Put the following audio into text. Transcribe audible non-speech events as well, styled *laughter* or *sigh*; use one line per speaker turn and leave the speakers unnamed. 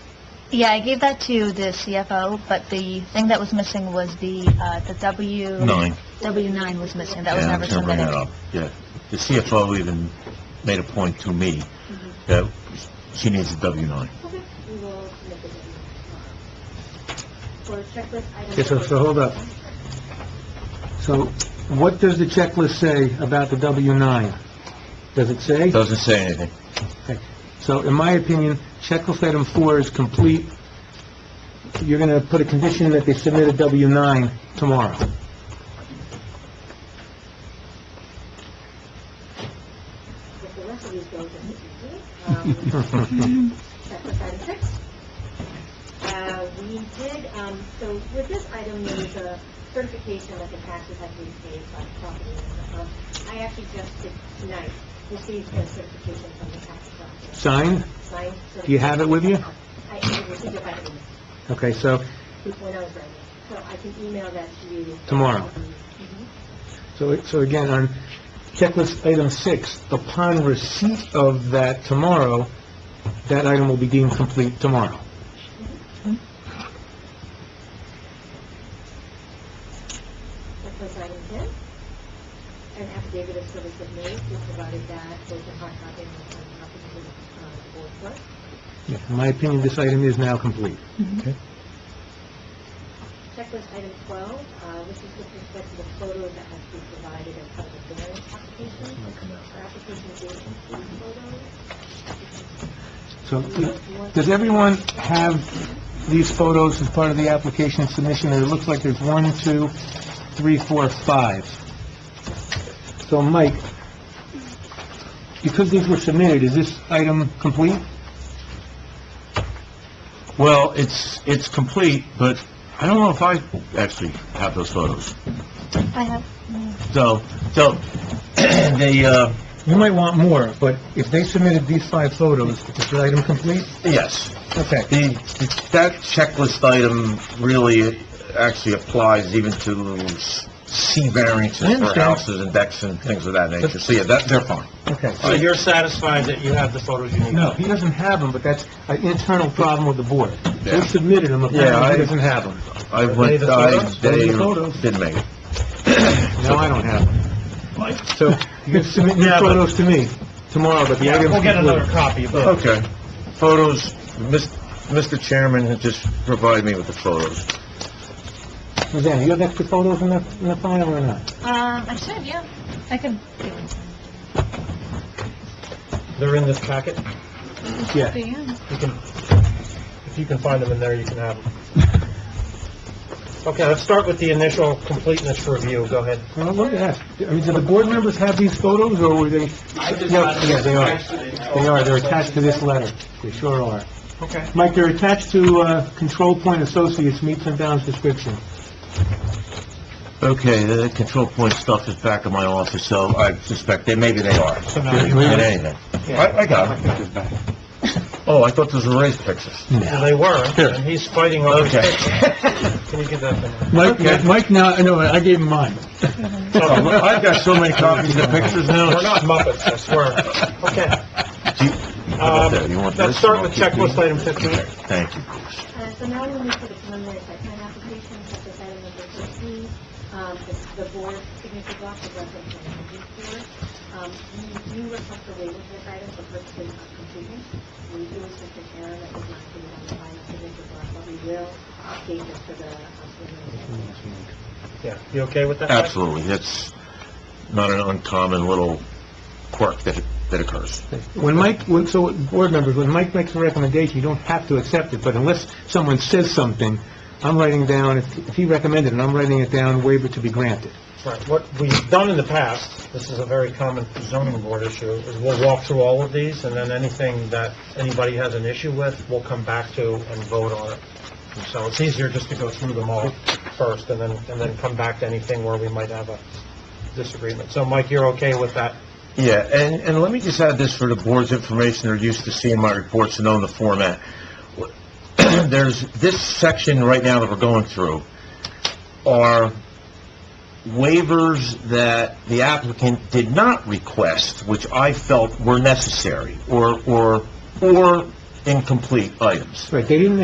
Yeah, I gave that to the CFO, but the thing that was missing was the, uh, the W...
Nine.
W-9 was missing, that was
Yeah,
never
I was gonna bring that
submitted.
up, yeah. The CFO even made a point to me
Mm-hmm.
that she needs a W-9.
We will submit this for checklist item.
Okay, so, so hold up. So what does the checklist say about the W-9? Does it say?
It doesn't say anything.
So in my opinion, checklist item four is complete. You're going to put a condition that they submit a W-9 tomorrow.
If the rest of these goes as you do. Um,
*laughs*
Checklist item six. Uh, we did, um, so with this item, there was a certification that the taxes had been paid by the property owner. Um, I actually just did tonight, received a certification from the tax collector.
Signed?
Signed certification.
Do you have it with you?
I I received it by email,
Okay, so,
when I was writing, so I can email that to you.
Tomorrow.
Mhm.
so, so again, on checklist item six, upon receipt of that tomorrow, that item will be deemed complete tomorrow.
Checklist item 10, an affidavit of service of made, we provided that with the hard copy and the signed copy to the uh, board clerk.
Yeah, In my opinion, this item is now complete.
Checklist item 12, uh, this is with respect to the photos that have to be provided as part of the variance application. Our application is including photos.
So, does everyone have these photos as part of the application submission? And It looks like there's one, two, three, four, five. So, Mike, because these were submitted, is this item complete?
Well, it's, it's complete, but I don't know if I actually have those photos.
I have,
So, so, *clears throat* they, uh,
You might want more, but if they submitted these five photos, is the item complete?
yes,
Okay.
the, that checklist item really actually applies even to C
I
variances for
understand.
houses and decks and things of that nature. So, yeah, that, they're fine.
Okay.
So you're satisfied that you have the photos you need?
No, he doesn't have them, but that's an internal problem with the board. They
Yeah.
submitted them,
Yeah,
apparently
I-
he doesn't have them.
I
Are they
went,
the
I,
photos? Are
they
they the photos?
didn't make it.
No, I don't have them. So, you can submit
*laughs*
your
Yeah, but-
photos to me tomorrow, but the
Yeah,
item's
we'll get
complete.
another copy of those.
Okay. Photos, Mis- Mr. Chairman had just provided me with the photos.
Roseanne, you have extra photos in the, in the file or not?
um, I should, yeah, I could give it
Oh.
They're in this packet.
Yeah.
to you.
You can, if you can find them in there, you can have them. Okay, let's start with the initial completeness review. Go ahead.
Well, Uh, let me ask, I mean, do the board members have these photos, or were they? Yeah, yeah, they are. They are, they're attached to this letter. They sure are.
Okay.
Mike, they're attached to, uh, Control Point Associates meets and bounds description.
Okay, the control point stuff is back in my office, so I suspect that maybe they are. At anything. I, I got them. Oh, I thought those were raised pictures.
Well, They were, and he's fighting over his
Okay.
picture. Can you give that to me?
Mike,
Okay.
Mike, now, I know, I gave him mine.
*laughs* So,
*laughs*
I've got so many copies of the pictures now.
We're not Muppets, I swear. Okay.
Do you- how about that? You want
Um, let's
this?
start with checklist item
Okay,
15.
Thank you, Bruce.
Uh, So now we move to the preliminary site plan application, which is item number 15. Um, the- The board signature block is referenced on the review board. Um, We do request a waiver for this item for purposes of completeness. We do assist an error that was not included on the final signature block, but we will update this for the uh, preliminary site plan.
Yeah, you okay with that? Mike?
Absolutely, that's not an uncommon little quirk that, that occurs.
When Mike, when- so, board members, when Mike makes a recommendation, you don't have to accept it, but unless someone says something, I'm writing down, if if he recommended it, I'm writing it down, waiver to be granted.
Right, what we've done in the past, this is a very common zoning board issue, is we'll walk through all of these, and then anything that anybody has an issue with, we'll come back to and vote on it. And So it's easier just to go through them all first, and then, and then come back to anything where we might have a disagreement. So Mike, you're okay with that?
Yeah, and, and let me just add this for the board's information, they're used to seeing my reports and knowing the format. *clears throat* There's, this section right now that we're going through are waivers that the applicant did not request, which I felt were necessary, or, or, or incomplete items.
Right, they didn't